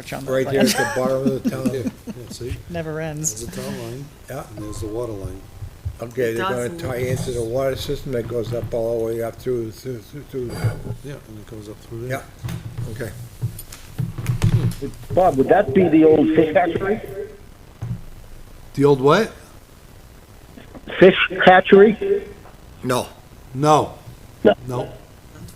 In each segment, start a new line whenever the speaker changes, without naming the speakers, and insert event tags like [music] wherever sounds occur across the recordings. March on that.
Right
like,
here at the bottom of
[laughs]
the [laughs]
Yeah,
town.
yeah, see,
Never
there's
ends.
the town line,
Yeah,
and there's the water line.
okay,
It
they're gonna
does
tie into the water system that goes up all the way up through, through, through- through,
Yeah, and it goes up through
yeah,
there.
okay.
Bob, would that be the old fish hatchery?
The old what?
Fish hatchery?
No,
No.
No.
No.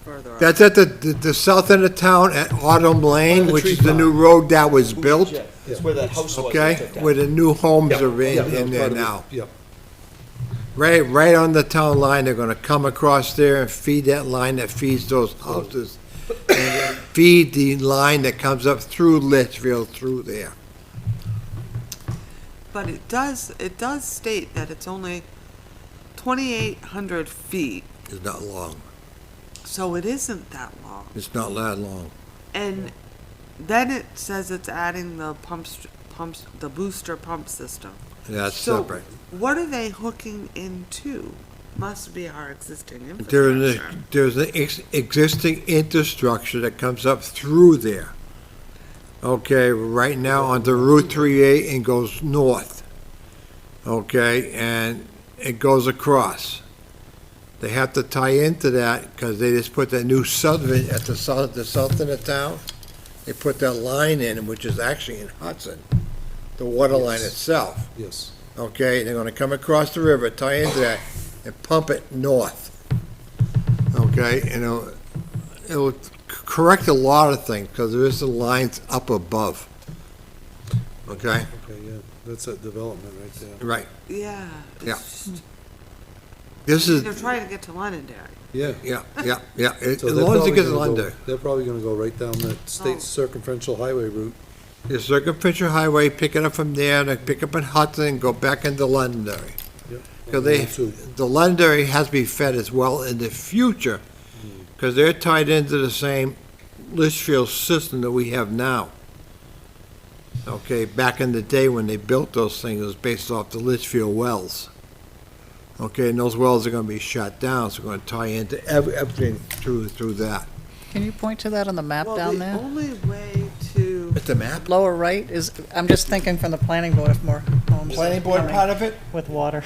Further up.
that's at the, the, the south end of town at Autumn Lane,
the
which
tree
is the
farm.
new road that was built,
Yeah, It's where that house was. they
okay?
took down.
Where the new homes are
Yeah,
in,
that's
in there
part of it.
now.
Yep,
Right, right on the town line, they're gonna come across there and feed that line that feeds those [coughs] houses. and Feed the line that comes up through Litchfield through there.
But it does, it does state that it's only twenty-eight hundred feet,
It's not long,
so it isn't that long.
it's not that long.
And then it says it's adding the pumps, pumps, the booster pump system.
That's
So,
separate.
What are they hooking into? Must be our existing
There's, a-
infrastructure.
there's an ex- existing infrastructure that comes up through there. Okay, right now onto Route 38 and goes north. Okay, and it goes across. They have to tie into that because they just put that new southern, at the south, the south end of town, they put that line in, which is actually in Hudson, the water line
Yes.
itself
yes.
okay, they're gonna come across the river, tie into that, and pump it north. Okay, and it'll, it'll c- correct a lot of things, because there is the lines up above. Okay,
Okay, yeah, that's that development right there.
right,
Yeah. it's
Yeah.
just-
this
They're
is,
trying to get to Londonderry.
Yeah.
yeah, yeah, yeah, It- as
So they're
long as it
probably
gets
gonna go-
under.
They're probably gonna go right down that
Oh.
state circumferential highway route.
The circumferential highway, pick it up from there, and then pick up in Hudson, and go back into Londonderry.
Yep.
Because they,
Route two.
the Londonderry has to be fed as well in the future, because they're tied into the same Litchfield system that we have now. Okay, back in the day when they built those things, it was based off the Litchfield wells. Okay, and those wells are gonna be shut down, so we're gonna tie into ev- everything through, through that.
Can you point to that on the map
Well,
down
the
there?
only way to.
It's a map?
Lower right is, I'm just thinking from the planning board if more homes are
Planning board
coming
part of it,
with water.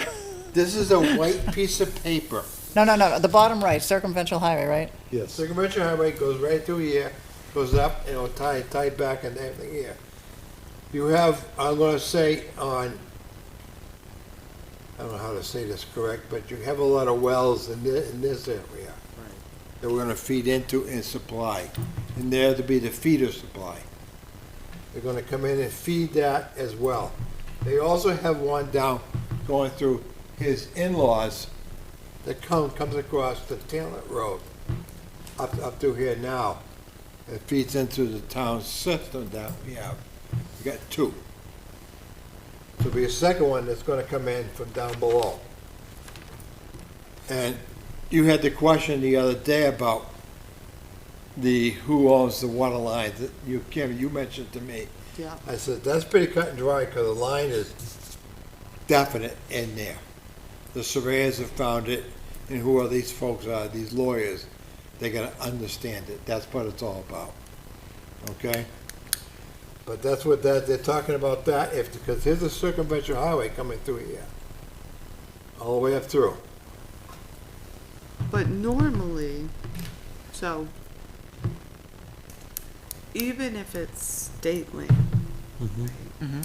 this is a white piece of paper.
[laughs] No, no, no, the bottom right, circumventual highway, right?
Yes,
Circumvention Highway goes right through here, goes up, and it'll tie, tie back and everything here. You have, I'm gonna say on, I don't know how to say this correct, but you have a lot of wells in this, in this area. That we're gonna feed into and supply, and there to be the feeder supply. They're gonna come in and feed that as well. They also have one down going through his in-laws that come, comes across the Talent Road up, up through here now. It feeds into the town system that we have. We got two. There'll be a second one that's gonna come in from down below. And you had the question the other day about the, who owns the water line, that you, Kim, you mentioned to me.
Yeah.
I said, that's pretty cut and dry, because the line is definite in there. The surveyors have found it, and who are these folks, are these lawyers, they gotta understand it, that's what it's all about, okay? But that's what that, they're talking about that, if, because here's a circumvention highway coming through here, all the way up through.
But normally, so even if it's state land
Mm-hmm.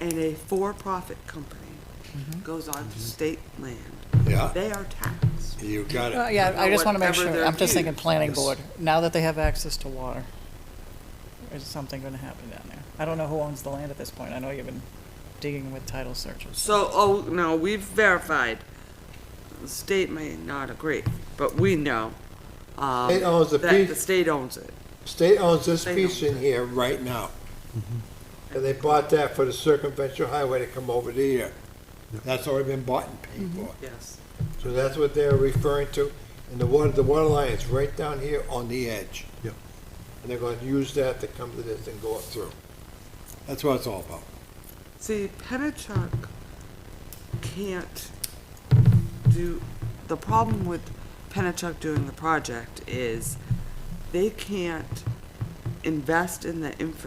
and a for-profit company goes on
Mm-hmm.
to state land,
Yeah.
they are taxed.
You got
Well,
it.
yeah, I just want to make
Uh,
sure,
Whatever their
I'm just thinking
views.
planning
Yes.
board, now that they have access to water, is something going to happen down there? I don't know who owns the land at this point, I know you've been digging with title searches.
So, oh, no, we've verified. The state may not agree, but we know um,
State owns the
that the
piece.
state owns it.
State owns this
They
piece in here right now. And they bought that for the circumvention highway to come over to here. That's already been bought and paid for.
Yes.
So that's what they're referring to, and the water, the water line is right down here on the edge.
Yep.
And they're gonna use that to come to this and go up through. That's what it's all about.
See, Penachuk can't do, the problem with Penachuk doing the project is they can't invest in the infrastructure